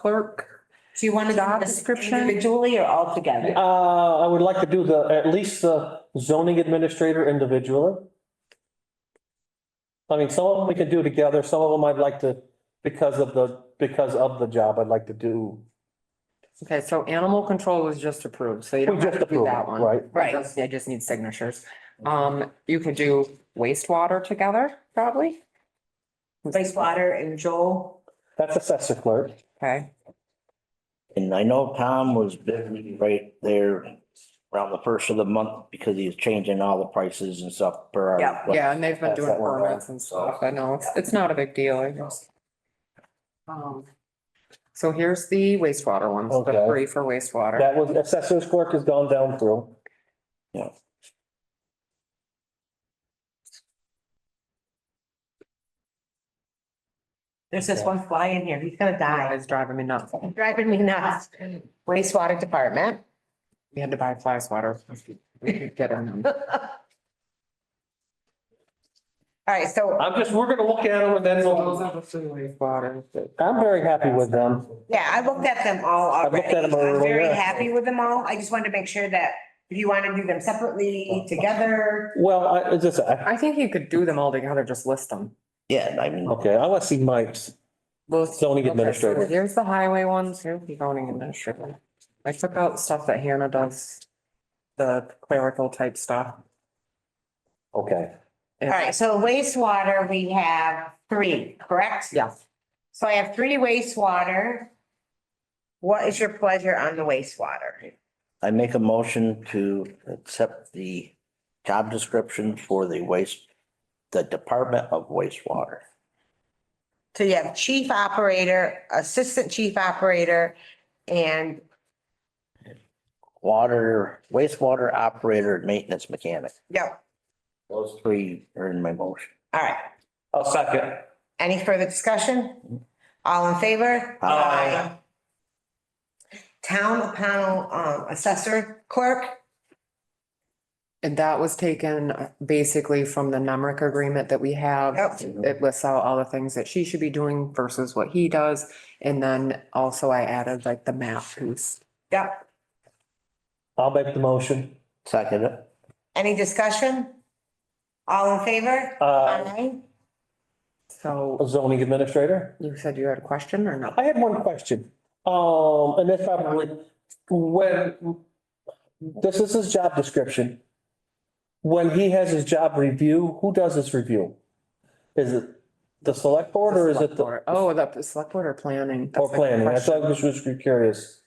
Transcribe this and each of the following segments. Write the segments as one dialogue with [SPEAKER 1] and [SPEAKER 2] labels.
[SPEAKER 1] clerk. Do you want to job description?
[SPEAKER 2] Individually or all together?
[SPEAKER 3] Uh, I would like to do the, at least the zoning administrator individually. I mean, some of them we can do together, some of them I'd like to, because of the, because of the job, I'd like to do.
[SPEAKER 1] Okay, so animal control was just approved, so you
[SPEAKER 3] We
[SPEAKER 1] don't have
[SPEAKER 3] just
[SPEAKER 1] to do
[SPEAKER 3] approve,
[SPEAKER 1] that one.
[SPEAKER 3] right?
[SPEAKER 2] Right.
[SPEAKER 1] Just- I just need signatures. Um, you could do wastewater together, probably.
[SPEAKER 2] Wastewater and Joel?
[SPEAKER 3] That's assessor clerk.
[SPEAKER 1] Okay,
[SPEAKER 4] And I know Tom was busy right there around the first of the month because he's changing all the prices and stuff per. our
[SPEAKER 2] Yeah.
[SPEAKER 4] request.
[SPEAKER 1] yeah, and they've been
[SPEAKER 4] That's
[SPEAKER 1] doing
[SPEAKER 4] that one, right?
[SPEAKER 1] permits and stuff. I know, it's, it's not a big deal, I guess. Um, so here's the wastewater ones, the
[SPEAKER 3] Okay.
[SPEAKER 1] three for wastewater.
[SPEAKER 3] That was, assessor's clerk has gone down through.
[SPEAKER 2] There's this one fly in here. He's gonna die.
[SPEAKER 1] It's driving me nuts.
[SPEAKER 2] Driving me nuts.
[SPEAKER 1] Wastewater department. We had to buy fly swatter. We could get them.
[SPEAKER 2] All right, so,
[SPEAKER 3] I'm just, we're gonna look at them and then we'll,
[SPEAKER 1] Wastewater.
[SPEAKER 3] I'm very happy with them.
[SPEAKER 2] yeah, I looked at them all
[SPEAKER 3] I've
[SPEAKER 2] already.
[SPEAKER 3] looked at them
[SPEAKER 2] I'm
[SPEAKER 3] already,
[SPEAKER 2] very
[SPEAKER 3] yeah.
[SPEAKER 2] happy with them all. I just wanted to make sure that if you want to do them separately, together,
[SPEAKER 3] Well, I, it's just, I,
[SPEAKER 1] I think you could do them all together, just list them.
[SPEAKER 4] Yeah, I mean,
[SPEAKER 3] okay, I wanna see Mike's. Zoning administrator.
[SPEAKER 1] Here's the highway ones, here's the zoning administrator. I took out stuff that Hannah does, the clerical type stuff.
[SPEAKER 3] Okay,
[SPEAKER 2] all right, so wastewater, we have three, correct?
[SPEAKER 1] Yeah,
[SPEAKER 2] So I have three wastewater. What is your pleasure on the wastewater?
[SPEAKER 4] I make a motion to accept the job description for the waste, the Department of Wastewater.
[SPEAKER 2] So you have chief operator, assistant chief operator, and
[SPEAKER 4] Water, wastewater operator, and maintenance mechanic.
[SPEAKER 2] Yep,
[SPEAKER 4] Those three are in my motion.
[SPEAKER 2] all right.
[SPEAKER 3] I'll second.
[SPEAKER 2] Any further discussion? All in favor?
[SPEAKER 3] Aye.
[SPEAKER 2] Town panel um, assessor clerk,
[SPEAKER 1] and that was taken uh, basically from the NEMRIC agreement that we have.
[SPEAKER 2] Yep.
[SPEAKER 1] It lists out all the things that she should be doing versus what he does. And then also I added like the map piece.
[SPEAKER 2] yep.
[SPEAKER 3] I'll make the motion.
[SPEAKER 4] Second it.
[SPEAKER 2] Any discussion? All in favor?
[SPEAKER 3] Uh,
[SPEAKER 2] Aye.
[SPEAKER 1] So
[SPEAKER 3] zoning administrator?
[SPEAKER 1] you said you had a question or not?
[SPEAKER 3] I had one question, um, and that's probably when, this is his job description. When he has his job review, who does his review? Is it the select board or is it the,
[SPEAKER 1] Select board. Oh, the select board or planning? That's
[SPEAKER 3] or
[SPEAKER 1] my
[SPEAKER 3] planning? I
[SPEAKER 1] question.
[SPEAKER 3] thought I was just curious.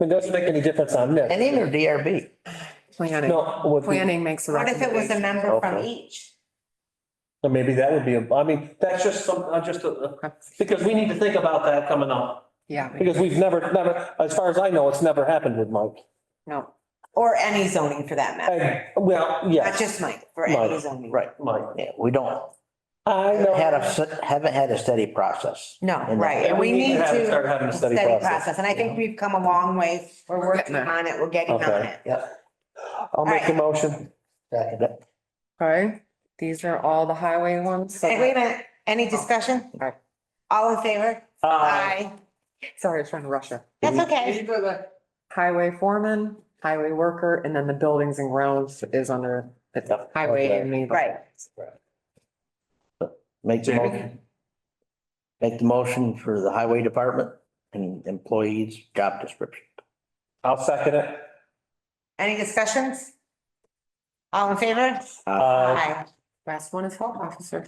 [SPEAKER 3] It doesn't make any difference on this.
[SPEAKER 4] And in or DRB.
[SPEAKER 1] Planning,
[SPEAKER 3] No, would be,
[SPEAKER 1] planning makes a
[SPEAKER 2] What if it was a
[SPEAKER 1] recommendation.
[SPEAKER 2] member from
[SPEAKER 4] Okay.
[SPEAKER 2] each?
[SPEAKER 3] or maybe that would be, a- I mean, that's just some, uh, just a, because we need to think about that coming up.
[SPEAKER 1] Yeah,
[SPEAKER 3] Because we've never, never, as far as I know, it's never happened with Mike.
[SPEAKER 1] no,
[SPEAKER 2] Or any zoning for that matter,
[SPEAKER 3] I, well,
[SPEAKER 2] not
[SPEAKER 3] Uh, yes,
[SPEAKER 2] just mine, for any
[SPEAKER 3] Mine,
[SPEAKER 2] zoning.
[SPEAKER 4] Right.
[SPEAKER 3] Mike.
[SPEAKER 4] Yeah, we don't
[SPEAKER 3] I know.
[SPEAKER 4] had a, se- haven't had a steady process.
[SPEAKER 2] No, right, and we need
[SPEAKER 3] have-
[SPEAKER 2] to
[SPEAKER 3] Start having a study
[SPEAKER 2] study
[SPEAKER 3] process.
[SPEAKER 2] process, and I think we've come a long way, we're working
[SPEAKER 1] getting there.
[SPEAKER 2] on it, we're getting on
[SPEAKER 3] Okay.
[SPEAKER 2] it.
[SPEAKER 3] I'll make a motion.
[SPEAKER 4] Second it.
[SPEAKER 1] okay, these are all the highway ones. so-
[SPEAKER 2] Hey, Wait a minute, any discussion?
[SPEAKER 1] Aye.
[SPEAKER 2] All in favor?
[SPEAKER 3] Uh,
[SPEAKER 2] Aye.
[SPEAKER 1] Sorry, I was trying to rush it.
[SPEAKER 2] That's okay.
[SPEAKER 1] Highway foreman, highway worker, and then the buildings and grounds is under it's
[SPEAKER 3] Yep,
[SPEAKER 1] highway
[SPEAKER 3] okay.
[SPEAKER 1] and the.
[SPEAKER 2] Right.
[SPEAKER 4] Make the
[SPEAKER 3] Jamie?
[SPEAKER 4] motion. Make the motion for the highway department and employees' job description.
[SPEAKER 3] I'll second it.
[SPEAKER 2] Any discussions? All in favor?
[SPEAKER 3] Uh,
[SPEAKER 1] Last one is health officer.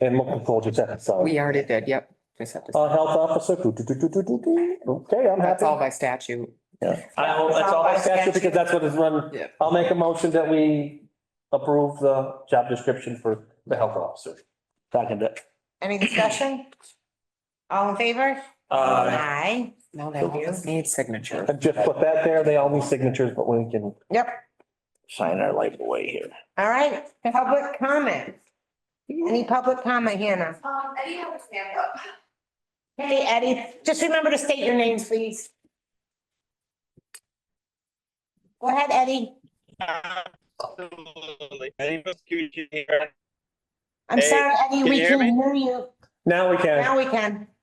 [SPEAKER 3] and we'll control just that, sorry.
[SPEAKER 1] We already did, yep. Just have
[SPEAKER 2] Oh,
[SPEAKER 1] to-
[SPEAKER 3] Uh, health officer, do, do, do, do, do, do, do. okay, I'm
[SPEAKER 1] That's
[SPEAKER 3] happy.
[SPEAKER 1] all by statute.
[SPEAKER 3] I'll, that's all I statute because that's what is run.
[SPEAKER 1] Yeah.
[SPEAKER 3] I'll make a motion that we approve the job description for the health officer.
[SPEAKER 4] Second it.
[SPEAKER 2] Any discussion? All in favor?
[SPEAKER 3] Uh,
[SPEAKER 2] Aye.
[SPEAKER 1] No, they all just need signature.
[SPEAKER 3] and just put that there, they all need signatures, but we can,
[SPEAKER 2] Yep,
[SPEAKER 4] Sign our life away here.
[SPEAKER 2] all right, public comment. Any public comment, Hannah?
[SPEAKER 5] Um, Eddie had his hand up.
[SPEAKER 2] Hey, Eddie, just remember to state your names, please. Go ahead, Eddie.
[SPEAKER 6] Absolutely. Any prosecution here?
[SPEAKER 2] I'm
[SPEAKER 6] Hey,
[SPEAKER 2] sorry, Eddie,
[SPEAKER 6] you
[SPEAKER 2] we
[SPEAKER 6] hear
[SPEAKER 2] can't hear you.
[SPEAKER 3] now we can.
[SPEAKER 2] Now we can.